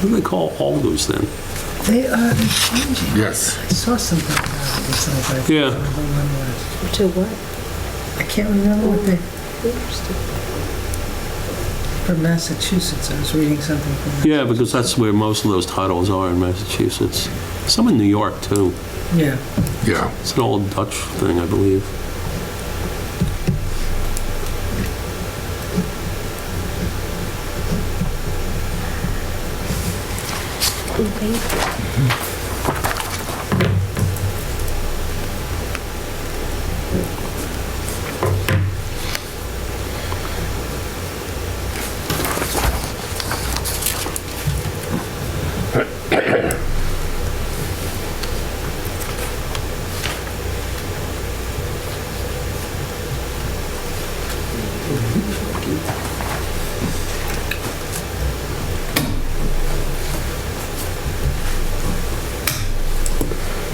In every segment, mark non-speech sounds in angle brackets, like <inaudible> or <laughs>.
What do they call alders then? They are they're changing. Yes. I saw something about it or something. Yeah. I don't remember what To what? it- I can't remember what they, Interesting. from Massachusetts, I was reading something from, Yeah, because that's where most of those titles are in Massachusetts. Some in New York, too. yeah. Yeah. It's an old Dutch thing, I believe. Okay.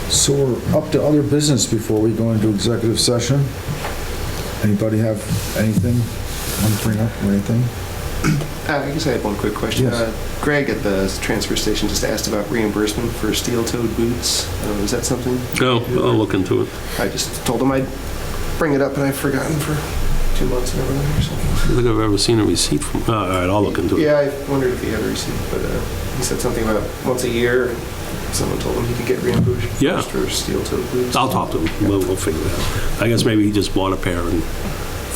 So we're up to other business before we go into executive session. Anybody have anything, want to bring up or anything? Uh, I guess I have one quick question. Yes. Uh, Greg at the transfer station just asked about reimbursement for steel-toed boots. Uh, Is that something? Oh, I'll look into it. I just told him I'd bring it up, and I've forgotten for two months and everything or I something. don't think I've ever seen a receipt from, all right, I'll look into it. Yeah, I wondered if he had a receipt, but uh, he said something about once a year, someone told him he could get reimbursed Yeah. for steel-toed boots. I'll talk to him. We'll, we'll figure it out. I guess maybe he just bought a pair and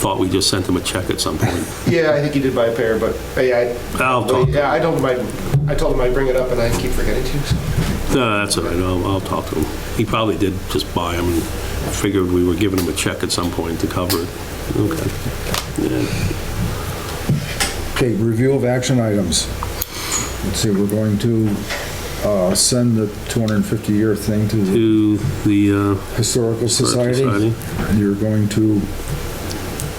thought we just sent him a check at some point. <laughs> Yeah, I think he did buy a pair, but hey, I'll I, talk. yeah, I told him I'd, I told him I'd bring it up, and I keep forgetting to. so. No, that's all right. I'll, I'll talk to him. He probably did just buy them and figured we were giving him a check at some point to cover it. Okay. Yeah. Okay, review of action items. Let's see, we're going to uh, send the 250-year thing to the To the uh, Historical Society. Society, And you're going to,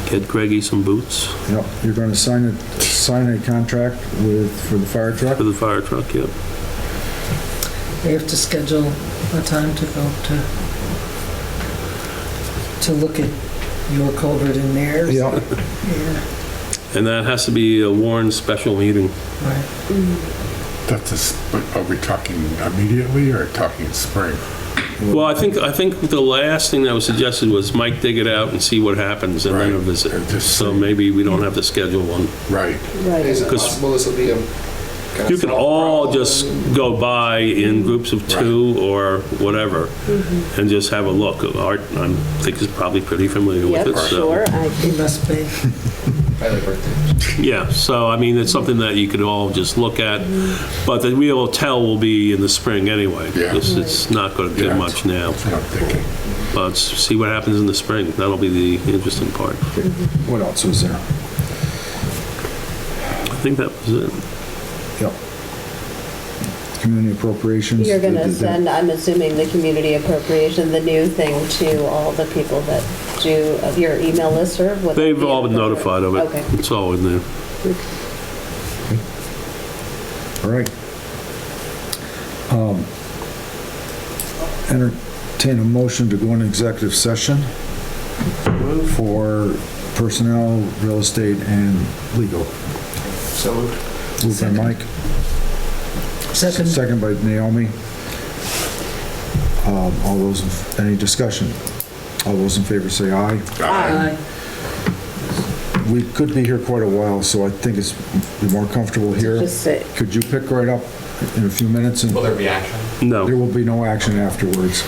get Greggy some boots yep, you're going to sign a, sign a contract with, for the fire truck. for the fire truck, yep. They have to schedule a time to go to, to look at your culvert in theirs. Yep, Yeah, And that has to be a Warren special meeting. right. That's a, sp- are we talking immediately or talking spring? Well, I think, I think the last thing that was suggested was Mike dig it out and see what happens and then a Right. visit. Just- So maybe we don't have to schedule one. Right. Right. Is it 'Cause- possible this will be a? kinda You can small all problem? just go by in groups of two or whatever and just have a look. Art, I think is probably pretty familiar with Yep, it, so. sure. I It must be. I like birthday. Yeah, so I mean, it's something that you could all just look at, but the real tell will be in the spring anyway. Yeah. because It's not going to do Yeah. much now, That's what I'm thinking. but s- see what happens in the spring. That'll be the interesting part. what else was there? I think that was it. Yep. Community appropriations. You're going Did- to did- send, I'm assuming, the community appropriation, the new thing to all the people that do of your email listserv? Would that They've be all been notified appropriate? of Okay. it. It's all in there. All right. Um, Entertain a motion to go into executive session for personnel, real estate, and legal. So moved. Moved by Mike, Second, second by Naomi. Um, All those, in- any discussion? All those in favor say aye. aye. We could be here quite a while, so I think it's more comfortable here. Just say, Could you pick right up in a few minutes? and Will there be action? No. There will be no action afterwards.